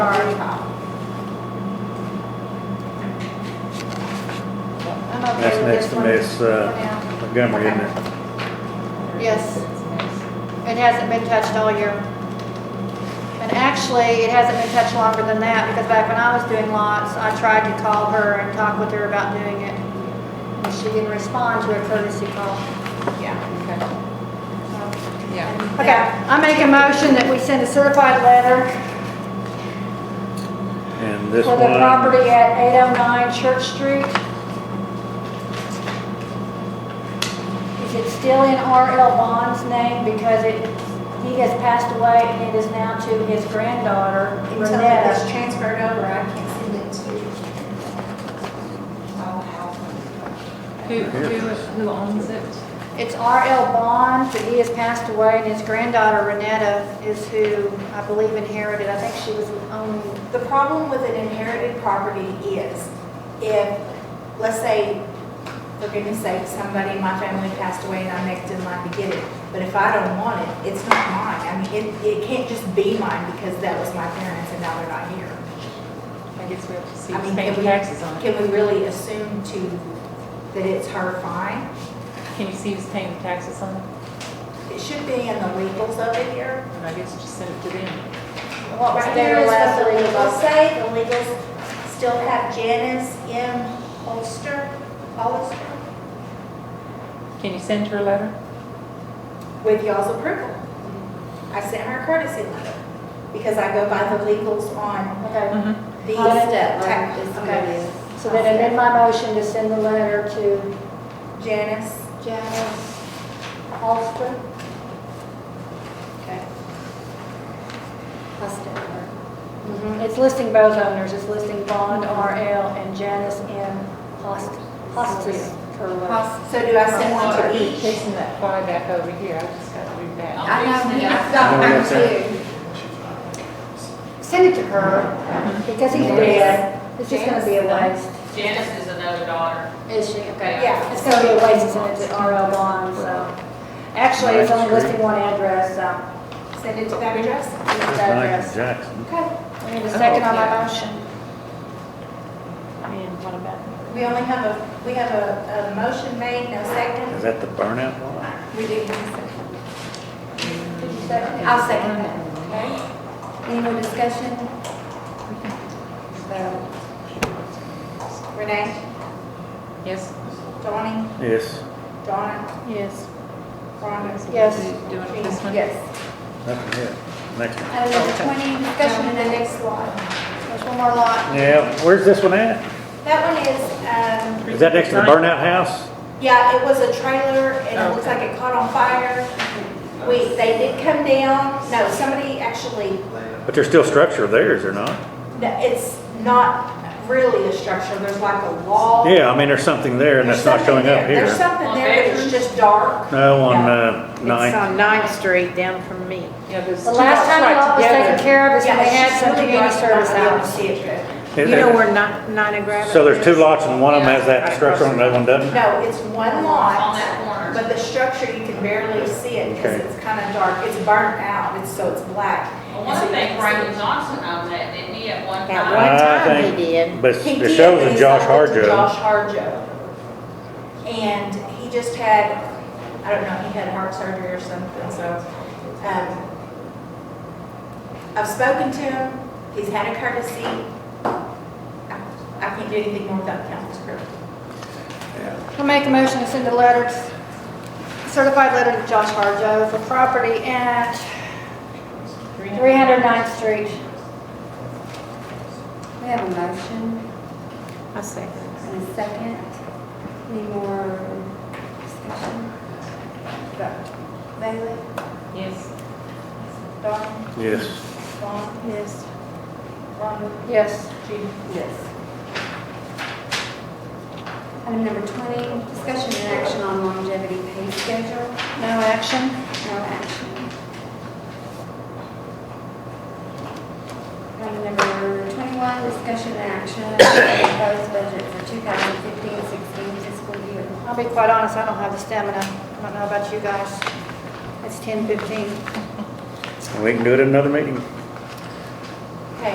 That's next to me, it's, uh, Yeah. Montgomery, isn't it? Yes. It hasn't been touched all year. And actually, it hasn't been touched longer than that, because back when I was doing lots, I tried to call her and talk with her about doing it. And she didn't respond to a courtesy call. Yeah, so. okay, yeah. Okay, I make a motion that we send a certified letter And this for one. the property at 809 Church Street. Is it still in R.L. Bond's name because it, he has passed away and it is now to his granddaughter, Until it's Renetta. transferred over, I can't send it to. I'll have. Who, who, who owns it? It's R.L. Bond, but he has passed away and his granddaughter, Renetta, is who I believe inherited. I think she was the only, The problem with an inherited property is if, let's say, for goodness sake, somebody in my family passed away and I next in line to get it. But if I don't want it, it's not mine. I mean, it, it can't just be mine because that was my parents and now they're not here. I guess we have to see, I mean, paying can we- taxes on it. Can we really assume to, that it's her fine? Can you see who's paying taxes on it? It should be in the legals over here. And I guess just send it to them. what was Right here their is last what the legal document? legals say, the legals still have Janice M. Holster, Hollister, Can you send her a letter? with y'all's approval. I sent her a courtesy letter, because I go by the legals on Okay. Mm-hmm. these. I'll let that tax- Okay. So then I amend my motion to send the letter to Janice, Janice Holster. Okay. Mm-hmm. It's listing both owners, it's listing Bond RL and Janice M. Host- Hostis. Correct. so do I send one to each? Chasing that fly back over here, I just got to read that. I know, I've Oh, got yeah, mine sir. too. Send it to her, because he's dead, it's just gonna be a waste. Janice is another daughter. Is she, okay. Yeah. It's gonna be a waste to send it to RL Bond, so. Actually, it's only listing one address, so. Send it to that address? it's It's address. Nigel Jackson. Okay, we need a second on my Okay. motion. And what about? We only have a, we have a, a motion made, no Is second. that the burnout one? We do need a second. Did you second it? I'll second that. Okay. Any more discussion? So, Renee, Yes? Donnie, Yes, Donna, Yes. Rhonda. Yes. Doing it this one? yes. nothing here. Next one. Item number twenty, discussion in and the then next slide. There's one more lot. Yeah, where's this one at? That one is, um, Is that next to the burnout house? Yeah, it was a trailer and it looks Okay. like it caught on fire. We, they did come down, no, somebody actually, But there's still structure there, is there not? no, it's not really a structure, there's like a wall. Yeah, I mean, there's something there and There's that's not something showing up there. There's here. something there, but it's just dark. No, on, uh, It's nine. on Ninth Street down from me. Yeah, there's two The last lots time the lot was right taken together. care of is when Yeah, they it's had just some really community dark, you're service not gonna out. be able to see it good. You know where Ni- Nina Grab So there's two lots and one of them has that structure and the other one doesn't? No, it's one on lot, that corner. but the structure, you can barely see it because Okay. it's kind of dark. It's burnt out, it's, so it's black. Well, One thing Brandon Johnson owned that, didn't he, at one At time? one I time think- he did. But He it did, shows but in he Josh sold it Harjo. to Josh Harjo. And he just had, I don't know, he had heart surgery or something, so, um, I've spoken to him, he's had a courtesy. I I can't do anything more without council's approval. I make a motion to send a letter, certified letter to Josh Harjo for property at 309th Street. We have a motion I second. and a second. Any more discussion? Vote. Bailey? Yes. Don, Yes, Don, Yes. Ron, Yes. Judy. Yes. Item number 20, discussion and action on longevity pay schedule. No action. No action. Item number 21, discussion and action on proposed budget for 2015-16 fiscal year. I'll be quite honest, I don't have the stamina. I don't know about you guys. It's 10:15. we can do it at another meeting.